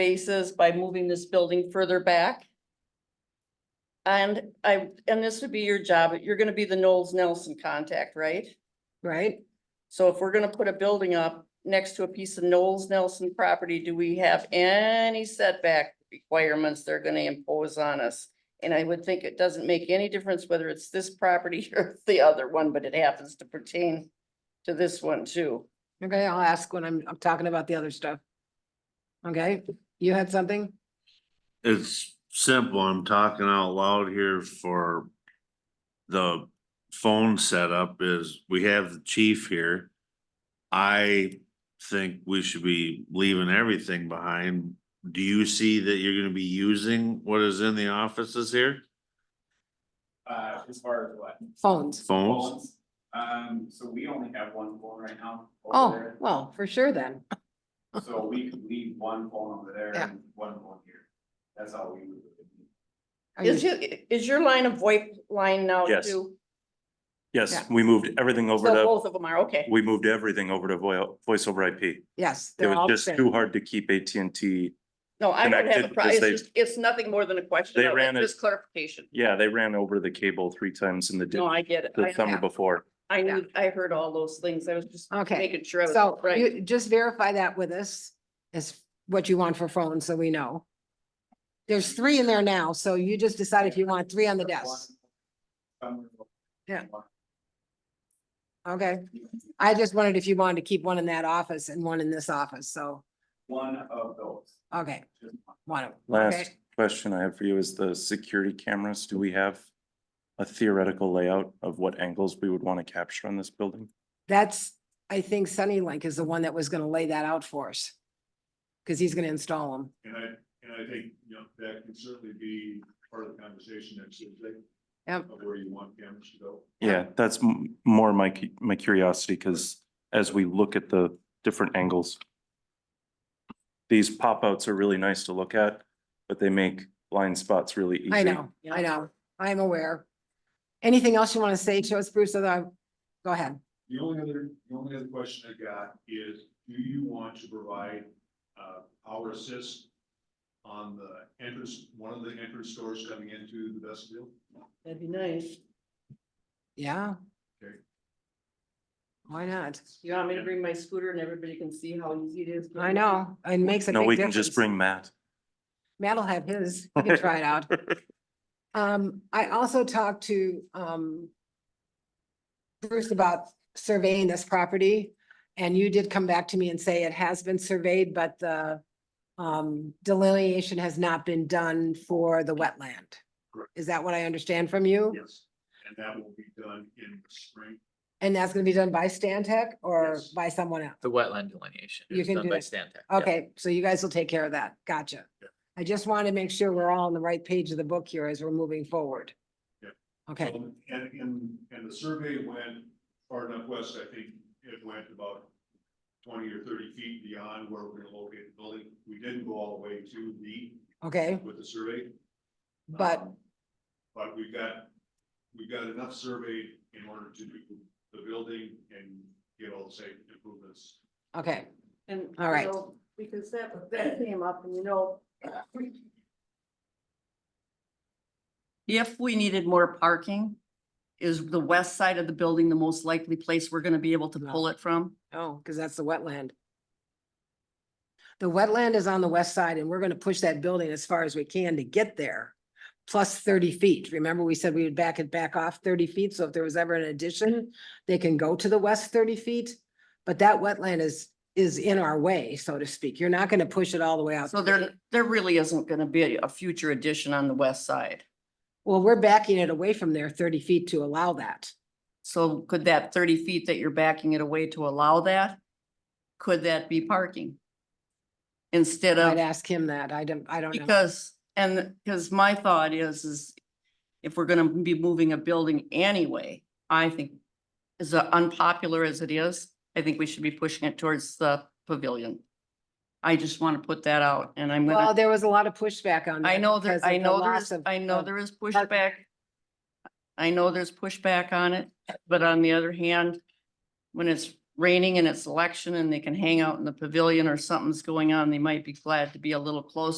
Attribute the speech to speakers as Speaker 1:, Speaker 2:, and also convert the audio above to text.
Speaker 1: spaces by moving this building further back. And I, and this would be your job, you're gonna be the Knowles Nelson contact, right?
Speaker 2: right?
Speaker 1: So if we're gonna put a building up next to a piece of Knowles Nelson property, do we have any setback requirements they're gonna impose on us? And I would think it doesn't make any difference whether it's this property or the other one, but it happens to pertain to this one too.
Speaker 2: Okay, I'll ask when I'm, I'm talking about the other stuff. Okay, you had something?
Speaker 3: It's simple, I'm talking out loud here for the phone setup is, we have the chief here. I think we should be leaving everything behind. Do you see that you're gonna be using what is in the offices here?
Speaker 4: Uh, as far as what?
Speaker 2: Phones.
Speaker 3: Phones?
Speaker 4: Phones? Um, so we only have one phone right now. over
Speaker 2: Oh,
Speaker 4: there.
Speaker 2: well, for sure then.
Speaker 4: So we could leave one phone over there
Speaker 2: Yeah.
Speaker 4: and one phone here. That's all we would. do.
Speaker 2: Are
Speaker 1: Is
Speaker 2: you-
Speaker 1: it, is your line of VoIP line now
Speaker 5: Yes.
Speaker 1: too?
Speaker 5: Yes,
Speaker 2: Yeah.
Speaker 5: we moved everything over
Speaker 1: So
Speaker 5: to,
Speaker 1: both of them are, okay.
Speaker 5: we moved everything over to voi- voice over IP.
Speaker 2: Yes.
Speaker 5: It
Speaker 2: they're all
Speaker 5: was
Speaker 2: the
Speaker 5: just
Speaker 2: same.
Speaker 5: too hard to keep AT&T.
Speaker 1: No, I don't have a
Speaker 5: connected
Speaker 1: problem.
Speaker 5: because
Speaker 1: It's
Speaker 5: they-
Speaker 1: just, it's nothing more than a question.
Speaker 5: They
Speaker 1: of it,
Speaker 5: ran it-
Speaker 1: Just clarification.
Speaker 5: Yeah, they ran over the cable three times in the
Speaker 1: No,
Speaker 5: di-
Speaker 1: I get it.
Speaker 5: the
Speaker 1: I,
Speaker 5: summer
Speaker 2: yeah.
Speaker 5: before.
Speaker 1: I knew, I heard all those things. I was just
Speaker 2: Okay,
Speaker 1: making sure. I was
Speaker 2: so
Speaker 1: right.
Speaker 2: you just verify that with us is what you want for phones, so we know. There's three in there now, so you just decide if you want three on the desk.
Speaker 4: One-
Speaker 2: Yeah.
Speaker 4: one-
Speaker 2: Okay, I just wondered if you wanted to keep one in that office and one in this office, so,
Speaker 4: One of those,
Speaker 2: okay,
Speaker 4: just one.
Speaker 2: one of them.
Speaker 5: Last
Speaker 2: Okay,
Speaker 5: question I have for you is the security cameras. Do we have a theoretical layout of what angles we would want to capture on this building?
Speaker 2: That's, I think Sunny Link is the one that was gonna lay that out for us. Cause he's gonna install them.
Speaker 6: And I, and I think, you know, that can certainly be part of the conversation next Tuesday.
Speaker 2: Yep.
Speaker 6: Of where you want cameras to go.
Speaker 2: Um,
Speaker 5: Yeah, that's m- more my, cu- my curiosity, because as we look at the different angles, these pop-outs are really nice to look at, but they make blind spots really easy.
Speaker 2: I know, I know, I'm aware. Anything else you wanna say to us, Bruce, other, go ahead.
Speaker 6: The only other, the only other question I got is, do you want to provide, uh, power assist? On the entrance, one of the entrance doors coming into the vestibule?
Speaker 1: That'd be nice.
Speaker 2: Yeah.
Speaker 6: Okay.
Speaker 2: Why not?
Speaker 1: You want me to bring my scooter and everybody can see how easy it is?
Speaker 2: I know, it makes a
Speaker 5: No,
Speaker 2: big
Speaker 5: we can just
Speaker 2: difference.
Speaker 5: bring Matt.
Speaker 2: Matt'll have his, he can try it out. Um, I also talked to, um, Bruce about surveying this property, and you did come back to me and say it has been surveyed, but the um, delineation has not been done for the wetland.
Speaker 6: Correct.
Speaker 2: Is that what I understand from you?
Speaker 6: Yes. And that will be done in the spring.
Speaker 2: And that's gonna be done by Stan Tech or
Speaker 6: Yes.
Speaker 2: by someone else?
Speaker 7: The wetland delineation.
Speaker 2: You
Speaker 7: is
Speaker 2: can
Speaker 7: done
Speaker 2: do
Speaker 7: by
Speaker 2: it.
Speaker 7: Stantec, yeah.
Speaker 2: Okay, so you guys will take care of that. Gotcha.
Speaker 6: Yeah.
Speaker 2: I just want to make sure we're all on the right page of the book here as we're moving forward.
Speaker 6: Yeah.
Speaker 2: Okay,
Speaker 6: Um, And, and, and the survey went far enough west, I think it went about twenty or thirty feet beyond where we're gonna locate the building. We didn't go all the way to the,
Speaker 2: okay,
Speaker 6: with the survey.
Speaker 2: but,
Speaker 6: Um, But we've got, we've got enough survey in order to do the building and get all the safety improvements.
Speaker 2: okay,
Speaker 1: And.
Speaker 2: All right.
Speaker 1: you know, Because that, that came up and you know. If we needed more parking, is the west side of the building the most likely place we're gonna be able to pull it from?
Speaker 2: oh, because that's the wetland. The wetland is on the west side and we're going to push that building as far as we can to get there. Plus thirty feet. Remember, we said we would back it back off thirty feet. So if there was ever an addition, they can go to the west thirty feet. But that wetland is, is in our way, so to speak. You're not going to push it all the way out.
Speaker 1: So there, there really isn't gonna be a future addition on the west side.
Speaker 2: Well, we're backing it away from there thirty feet to allow that.
Speaker 1: So could that thirty feet that you're backing it away to allow that? Could that be parking? Instead of.
Speaker 2: I'd ask him that. I don't, I don't know.
Speaker 1: Because, and, because my thought is, is if we're gonna be moving a building anyway, I think as unpopular as it is, I think we should be pushing it towards the pavilion. I just want to put that out and I'm
Speaker 2: Well,
Speaker 1: gonna,
Speaker 2: there was a lot of pushback on.
Speaker 1: I
Speaker 2: that
Speaker 1: know there,
Speaker 2: because of
Speaker 1: I
Speaker 2: the
Speaker 1: know
Speaker 2: loss
Speaker 1: there's,
Speaker 2: of-
Speaker 1: I know
Speaker 2: of-
Speaker 1: there is pushback. I know there's pushback on it, but on the other hand, when it's raining and it's election and they can hang out in the pavilion or something's going on, they might be glad to be a little closer.